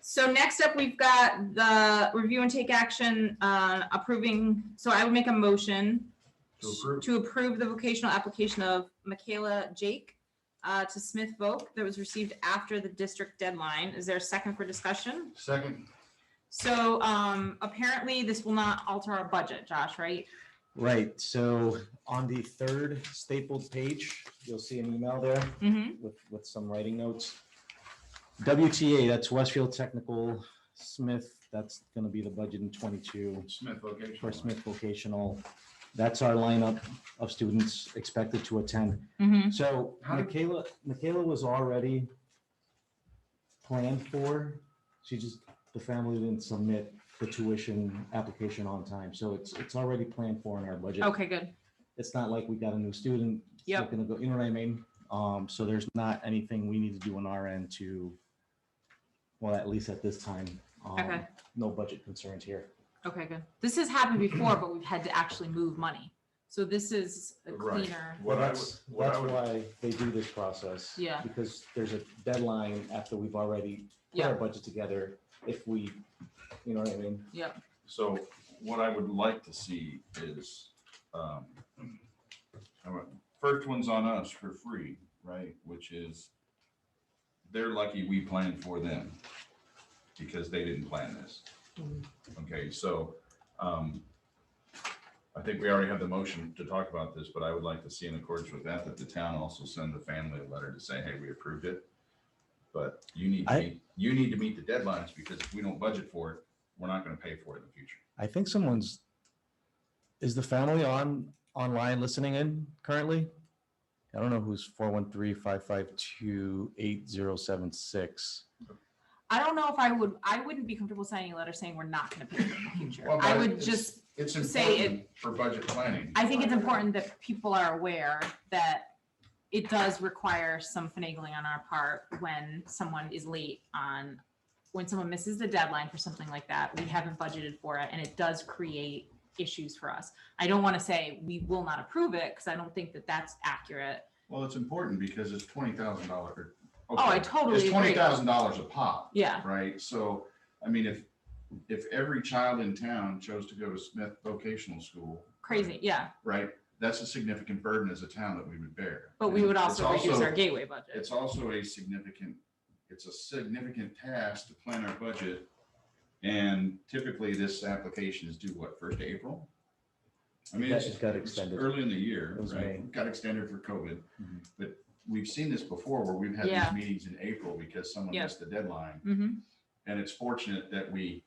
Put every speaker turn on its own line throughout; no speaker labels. So next up, we've got the review and take action uh, approving, so I would make a motion
To approve.
to approve the vocational application of Michaela Jake uh, to Smith Voc that was received after the district deadline. Is there a second for discussion?
Second,
So um, apparently this will not alter our budget, Josh, right?
Right, so on the third stapled page, you'll see an email there
Mm-hmm.
with, with some writing notes. WTA, that's Westfield Technical, Smith, that's gonna be the budget in twenty-two.
Smith vocational.
For Smith Vocational, that's our lineup of students expected to attend.
Mm-hmm.
So
How did-
Michaela, Michaela was already planned for. She just, the family didn't submit the tuition application on time. So it's, it's already planned for in our budget.
Okay, good.
It's not like we got a new student. it's not
Yep.
Gonna go, you know what I mean? Um, so there's not anything we need to do on our end to, well, at least at this time. um,
Okay.
No budget concerns here.
Okay, good. This has happened before, but we've had to actually move money. So this is a
Right.
cleaner.
What I would,
That's,
what I
that's
would,
why they do this process.
Yeah.
Because there's a deadline after we've already put
Yeah.
our budget together, if we, you know what I mean?
so what I would like to see is, um, I would- first one's on us for free, right? Which is, they're lucky we planned for them because they didn't plan this. Okay, so, um, I think we already have the motion to talk about this, but I would like to see in accordance with that, that the town also send the family a letter to say, hey, we approved it. But you need, to
I-
meet- you need to meet the deadlines because if we don't budget for it, we're not gonna pay for it in the future.
I think someone's, is the family on, online listening in currently? I don't know who's four one three five five two eight zero seven six.
I don't know if I would, I wouldn't be comfortable signing a letter saying we're not gonna pay for the future.
Well,
I
but
would
it's-
just,
It's
Say it-
important for budget planning.
I think it's important that people are aware that it does require some finagling on our part when someone is late on, when someone misses the deadline for something like that, we haven't budgeted for it, and it does create issues for us. I don't wanna say we will not approve it, because I don't think that that's accurate.
Well, it's important because it's twenty thousand dollar. Oh,
I totally
It's
agree.
twenty thousand dollars a pop,
Yeah,
right? So, I mean, if, if every child in town chose to go to Smith Vocational School.
crazy, yeah,
Right, that's a significant burden as a town that we would bear.
but we would
It's
also reduce our gateway budget.
It's also a significant, it's a significant task to plan our budget. And typically this application is due what, first of April? I mean,
That
it's
just got
it's
extended.
Early in the year,
It was May.
right? Got extended for COVID.
Mhm.
But we've seen this before where we've had
Yeah.
these meetings in April because someone
Yeah.
missed the deadline.
hmm
And it's fortunate that we,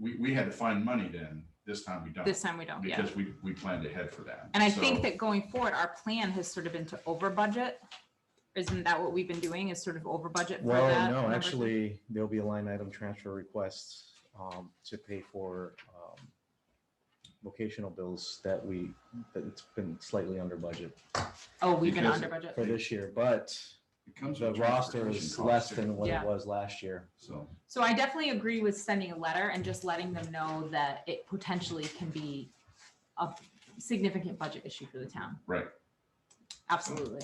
we, we had to find money then. This time we don't.
this time we don't, yeah.
Because we, we planned ahead for that.
And I
So-
think that going forward, our plan has sort of been to over budget. Isn't that what we've been doing is sort of over budget? for
Well,
that
no,
number?
actually, there'll be a line item transfer requests um, to pay for um, vocational bills that we, that it's been slightly under budget
Oh, we've been
because
under budget.
for this year, but
It comes
the
with
roster
transportation
is
costs,
less
too.
than what
Yeah.
it was last year.
So.
So I definitely agree with sending a letter and just letting them know that it potentially can be a significant budget issue for the town.
Right.
Absolutely.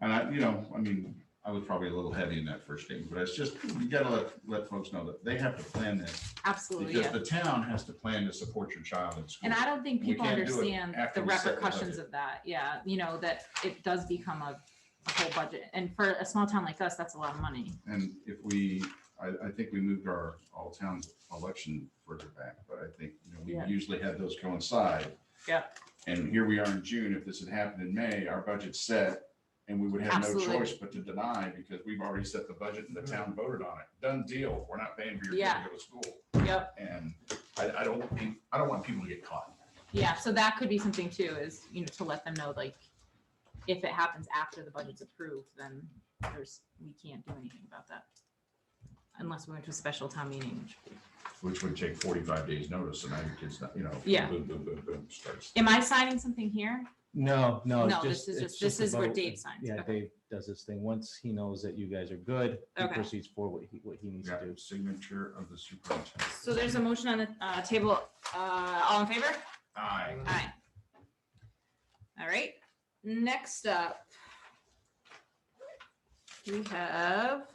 And I, you know, I mean, I was probably a little heavy in that first statement, but it's just, you gotta let, let folks know that they have to plan this.
Absolutely.
Because
Yeah.
the town has to plan to support your child in school.
And I don't think
We
people
can't do it
understand
after
the
we set the
repercussions
budget.
of that. Yeah. You know, that it does become a a whole budget. And for a small town like us, that's a lot of money.
And if we, I, I think we moved our all town election further back, but I think, you know,
Yeah.
we usually had those coincide.
Yeah.
And here we are in June. If this had happened in May, our budget's set and we would have no
Absolutely.
choice but to deny because we've already set the budget and the town voted on it. Done deal. We're not paying for your kid
Yeah.
to go to school.
Yep.
And I, I don't, want peop- I don't want people to get caught.
Yeah, so that could be something too, is, you know, to let them know, like, if it happens after the budget's approved, then there's, we can't do anything about that. Unless we went to a special town meeting. which-
Which would take forty-five days notice and now your kid's not, you know.
Yeah.
Boom, boom, boom, boom, starts.
Am I signing something here?
No, no. it's
No, this
just-
is
it's
just- this
a
is where
vote.
Dave signs.
Yeah,
Okay.
Dave does this thing. Once he knows that you guys are good, he
Okay.
proceeds forward what he, what he needs
Yeah,
to do.
signature of the superintendent.
So there's a motion on the uh, table. Uh, All in favor?
Aye.
Aye. All right, next up. We have